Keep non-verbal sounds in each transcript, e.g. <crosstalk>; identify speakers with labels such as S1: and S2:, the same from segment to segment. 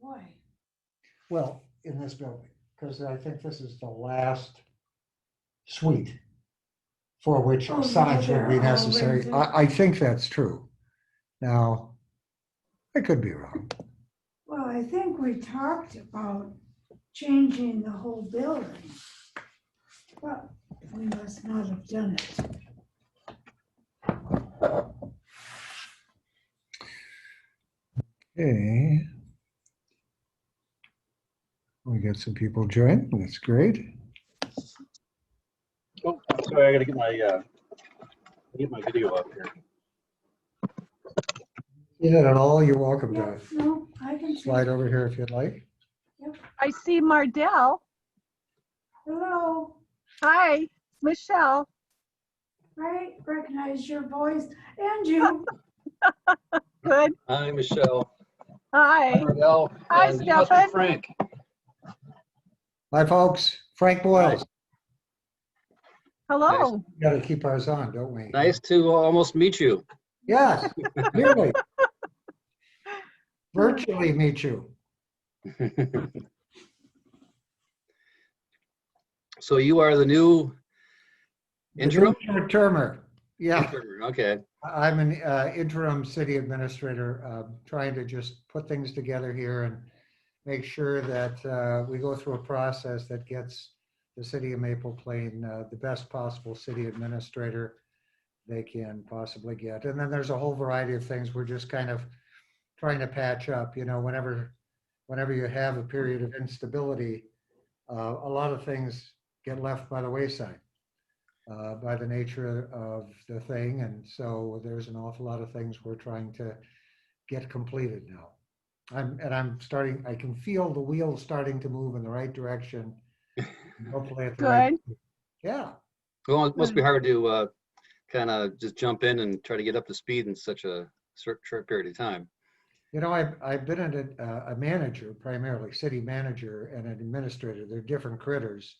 S1: Boy,
S2: Well, in this building, because I think this is the last suite for which
S1: Oh, yeah,
S2: signs would be
S1: they're all
S2: necessary.
S1: rented.
S2: I, I think that's true. Now, I could be wrong.
S1: well, I think we talked about changing the whole building. But we must not have done it.
S2: Okay. We got some people joined. That's great.
S3: Oh, I'm sorry, I gotta get my, uh, get my video up here.
S2: You did it all. You're welcome to
S1: Yeah, no, I can see.
S2: slide over here if you'd like.
S4: I see Mardell.
S1: Hello,
S4: Hi, Michelle.
S1: I recognize your voice and <laughs> you.
S4: Good.
S5: Hi, Michelle.
S4: Hi.
S5: Miguel,
S4: Hi,
S5: and it must be
S4: Stefan.
S5: Frank.
S2: Hi, folks. Frank Boyle.
S4: Hello.
S2: Got to keep ours on, don't we?
S5: Nice to uh, almost meet you.
S2: Yes, really. Virtually meet you.
S5: So you are the new interim?
S2: Short termer. Yeah,
S5: Interim, Okay,
S2: I'm an uh, interim city administrator, uh, trying to just put things together here and make sure that uh, we go through a process that gets the city of Maple Plain uh, the best possible city administrator they can possibly get. And then there's a whole variety of things we're just kind of trying to patch up, you know, whenever, whenever you have a period of instability, uh, a lot of things get left by the wayside uh, by the nature of the thing. And so there's an awful lot of things we're trying to get completed now. I'm, and I'm starting, I can feel the wheels starting to move in the right direction. Hopefully at the right.
S4: Good.
S2: Yeah,
S5: well, it must be hard to, uh, kind of just jump in and try to get up to speed in such a short, short period of time.
S2: you know, I've, I've been a, a- a manager primarily, city manager and an administrator. They're different critters.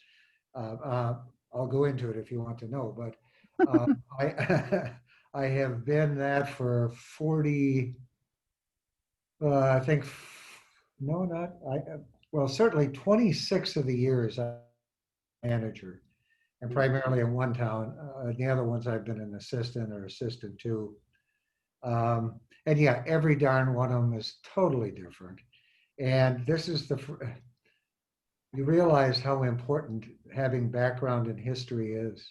S2: Uh, uh, I'll go into it if you want to know, but uh, I, <laughs> I have been that for 40, uh, I think, no, not, I, uh, well, certainly 26 of the years I manager. And primarily in one town, uh, the other ones I've been an assistant or assistant to. Um, and yeah, every darn one of them is totally different. And this is the, fir- you realize how important having background in history is.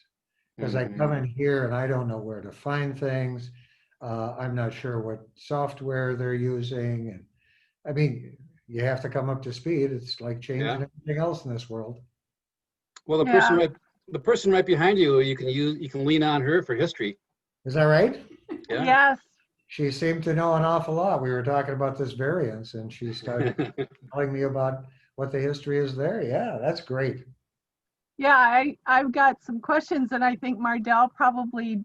S2: Because I come in here and I don't know where to find things. Uh, I'm not sure what software they're using. And I mean, you have to come up to speed. It's like changing
S5: Yeah.
S2: everything else in this world.
S5: Well, the person right, the person right behind you, you can use, you can lean on her for history.
S2: Is that right?
S5: <laughs> Yeah.
S4: Yes.
S2: She seemed to know an awful lot. We were talking about this variance and she
S5: <laughs>
S2: started telling me about what the history is there. Yeah, that's great.
S4: Yeah, I, I've got some questions and I think Mardell probably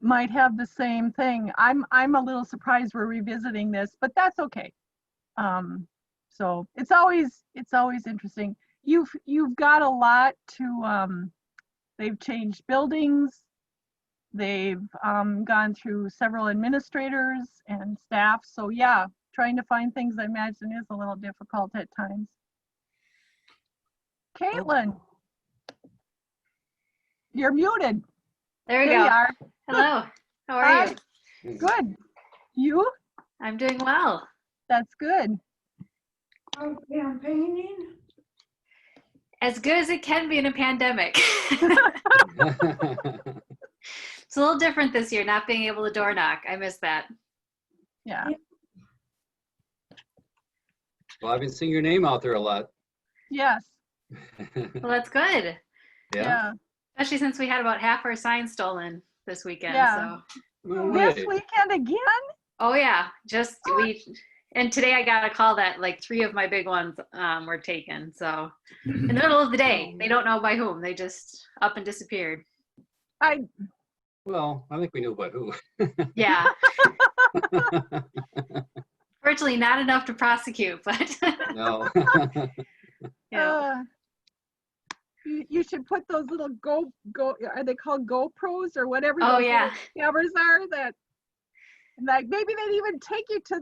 S4: might have the same thing. I'm, I'm a little surprised we're revisiting this, but that's okay. Um, so it's always, it's always interesting. You've, you've got a lot to, um, they've changed buildings. They've, um, gone through several administrators and staff. So yeah, trying to find things I imagine is a little difficult at times. Caitlin. You're muted. There
S6: There we
S4: you
S6: go.
S4: are.
S6: Hello. How are
S4: Hi.
S6: you?
S4: Good. You?
S6: I'm doing well.
S4: That's good.
S1: Out campaigning?
S6: As good as it can be in
S4: <laughs>
S6: a pandemic. <laughs> it's a little different this year, not being able to door knock. I miss that.
S4: Yeah.
S5: Well, I've been seeing your name out there a lot. <laughs>
S4: Yes.
S6: Well, that's good,
S5: Yeah.
S6: especially since we had about half our signs stolen this weekend.
S4: Yeah.
S6: So,
S5: No
S4: This
S5: way.
S4: weekend again?
S6: oh yeah, just we. And today I got a call that like three of my big ones um, were taken. So in the middle of the day,
S4: Oh.
S6: they don't know by whom. They just up
S4: <laughs>
S6: and disappeared.
S5: Well, I think we knew about who.
S6: Yeah.
S4: <laughs>
S6: Fortunately, not enough to prosecute, but <laughs>
S5: No.
S6: yeah.
S4: Uh, you, you should put those little go go are they called GoPros or whatever
S6: Oh
S4: those
S6: yeah.
S4: little cameras are that like maybe they'd even take you to